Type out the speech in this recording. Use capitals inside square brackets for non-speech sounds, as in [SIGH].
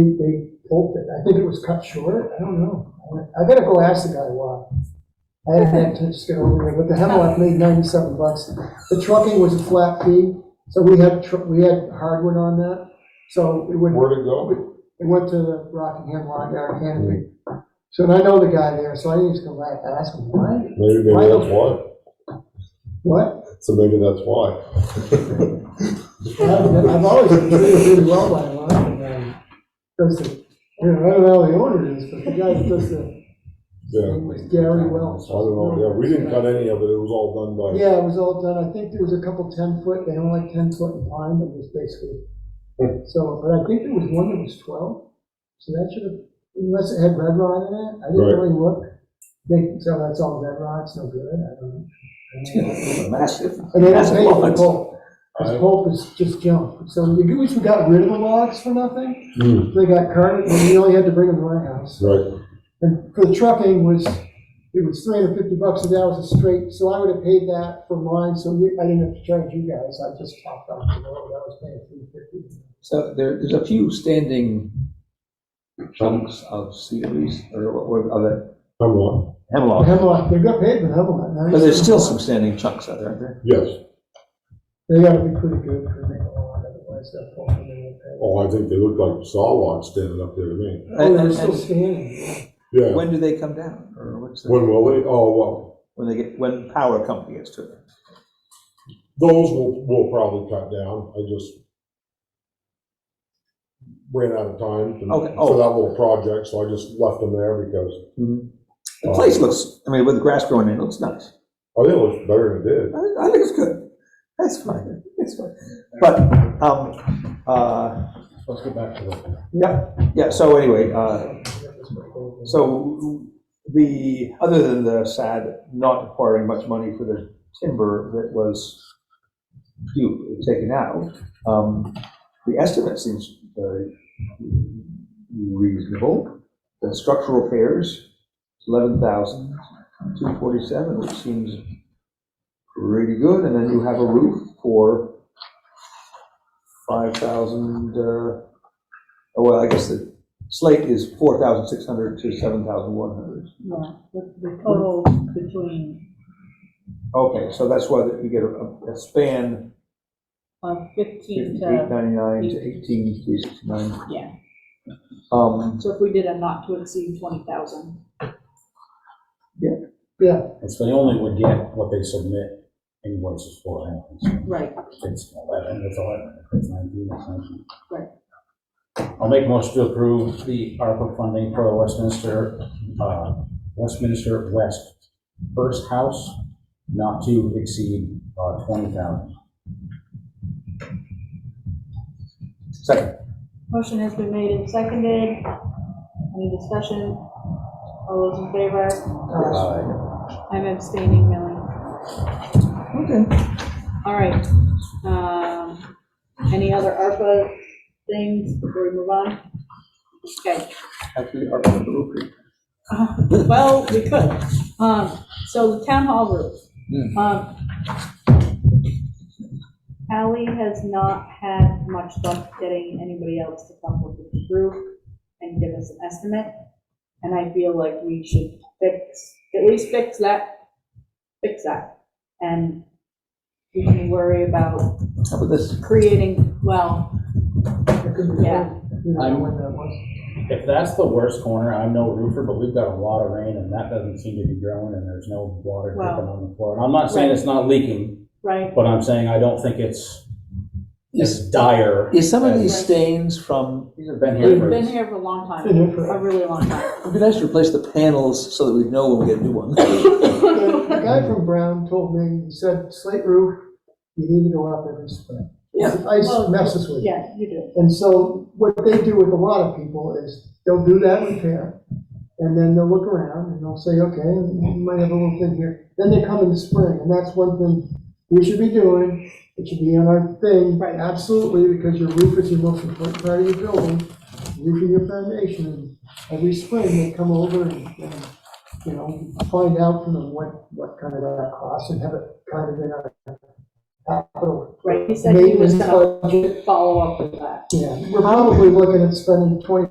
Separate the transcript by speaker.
Speaker 1: think they pulled it. I think it was cut short. I don't know. I gotta go ask the guy why. I had that to just get over there, but the Hemlock made ninety-seven bucks. The trucking was a flat fee, so we had, tr- we had hardwood on that. So it would,
Speaker 2: Where to go?
Speaker 1: it went to the Rockingham Rock Yard Canopy. So and I know the guy there, so I need to go back and ask him why.
Speaker 2: Maybe, maybe that's why.
Speaker 1: What?
Speaker 2: So maybe that's why.
Speaker 1: I've I've always been treated really well by him. and, um, Does the, you know, I don't know how the owner is, but the guy that does the
Speaker 2: Yeah.
Speaker 1: It was Gary
Speaker 2: I
Speaker 1: Wells.
Speaker 2: don't know. Yeah, we didn't cut any of it. It was all done by.
Speaker 1: Yeah, it was all done, I think there was a couple ten foot, they only like ten foot in pine, but it was basically,
Speaker 2: Hmm.
Speaker 1: so, but I think there was one that was twelve, so that should have, unless it had red rod in it, I
Speaker 2: Right.
Speaker 1: didn't really look. They, so that's all red rod, it's no good, I don't know.
Speaker 3: Massive.
Speaker 1: And they don't
Speaker 3: massive
Speaker 1: pay for
Speaker 3: lots.
Speaker 1: pulp,
Speaker 2: I-
Speaker 1: because pulp is just junk, so we at least we got rid of the logs for nothing,
Speaker 2: Hmm,
Speaker 1: they got carted, and we only had to bring them to my house.
Speaker 2: Right.
Speaker 1: And for the trucking was, it was three hundred fifty bucks, and that was a straight, so I would have paid that for mine, so we- I didn't have to charge you guys, I just topped off the load, I was paying three fifty.
Speaker 3: So there, there's a few standing chunks of series, or, or, of it,
Speaker 2: I'm wrong.
Speaker 3: hemlock.
Speaker 1: Hemlock, they got paid for Hemlock, nice.
Speaker 3: But there's still some standing chunks out there, aren't there?
Speaker 2: Yes.
Speaker 1: They gotta be pretty good for making a lot, otherwise they'll fall in there.
Speaker 2: Oh, I think they look like saw logs standing up there to me.
Speaker 1: Oh,
Speaker 3: And-
Speaker 1: they're
Speaker 3: and-
Speaker 1: still
Speaker 3: and
Speaker 1: standing,
Speaker 2: Yeah.
Speaker 3: When do they come down, or what's the,
Speaker 2: When will they? Oh, well,
Speaker 3: when they get, when power company gets to them?
Speaker 2: those will, will probably cut down. I just ran out of time to-
Speaker 3: Okay,
Speaker 2: for
Speaker 3: oh.
Speaker 2: that little project, so I just left them there because,
Speaker 3: The place looks, I mean, with the grass growing in, it looks nice.
Speaker 2: oh, they looked better than it did.
Speaker 3: I, I think it's good. That's fine, it's fine. But, um, uh,
Speaker 2: Let's go back to the.
Speaker 3: yeah, yeah, so anyway, uh, So the, other than the sad not acquiring much money for the timber that was due, taken out, um, the estimate seems very reasonable. The structural repairs, eleven thousand two forty-seven, which seems pretty good, and then you have a roof for five thousand, uh, oh, well, I guess the Slate is four thousand six hundred to seven thousand one hundred.
Speaker 4: Yeah, the, the total between,
Speaker 3: Okay, so that's why that we get a, a span
Speaker 4: uh, fifteen
Speaker 3: fifty-eight
Speaker 4: to,
Speaker 3: ninety-nine to eighteen three sixty-nine.
Speaker 4: yeah,
Speaker 3: Um,
Speaker 4: so if we did a not to exceed twenty thousand,
Speaker 5: It's they only would get what they submit invoices for, anyways.
Speaker 4: right,
Speaker 5: It's eleven, it's eleven, it's nineteen, it's nineteen.
Speaker 4: Right.
Speaker 5: I'll make a motion to approve the ARPA funding for the Westminster, uh, Westminster West First House, not to exceed, uh, twenty thousand.
Speaker 3: second,
Speaker 4: Motion has been made and seconded. Any discussion? All those in favor?
Speaker 5: Uh,
Speaker 4: I'm abstaining, Millie.
Speaker 3: okay,
Speaker 4: All right. Um, any other ARPA things before we move on? Okay,
Speaker 3: actually, our roof.
Speaker 4: Uh, well, we could. Um, so the town hall roof. Um, Ally has not had much luck getting anybody else to come up with the roof and give us an estimate. And I feel like we should fix, at least fix that, fix that. And we can worry about
Speaker 3: How about this?
Speaker 4: creating, well, Yeah.
Speaker 1: You know,
Speaker 5: I'm-
Speaker 1: when that was.
Speaker 5: If that's the worst corner, I'm no roofer, but we've got a lot of rain and that doesn't seem to be growing and there's no water dripping on the floor. And I'm not saying it's not leaking,
Speaker 4: right?
Speaker 5: But I'm saying I don't think it's as dire.
Speaker 3: Is some of
Speaker 5: as-
Speaker 3: these stains from,
Speaker 5: These have been here
Speaker 4: We've
Speaker 5: for.
Speaker 4: been here for a long time,
Speaker 1: Been here for-
Speaker 4: a really long time. [LAUGHS]
Speaker 3: it'd be nice to replace the panels so that we'd know when we get a new one. [LAUGHS]
Speaker 1: The the guy from Brown told me, he said, slate roof, you need to go up every spring.
Speaker 3: Yeah.
Speaker 1: Ice
Speaker 4: Well,
Speaker 1: messes with you.
Speaker 4: Yeah, you do.
Speaker 1: And so what they do with a lot of people is they'll do that repair and then they'll look around and they'll say, okay, we might have a little thing here. Then they come in the spring and that's one thing we should be doing. It should be on our thing.
Speaker 4: Right.
Speaker 1: Absolutely, because your roof is your most important part of your building, roofing your foundation. And Every spring they come over and, and, you know, find out from them what, what kind of that costs and have it kind of in our capital.
Speaker 4: Right, he said he was
Speaker 1: maintenance
Speaker 4: gonna
Speaker 1: budget.
Speaker 4: follow up with that.
Speaker 1: Yeah, we're probably looking at spending twenty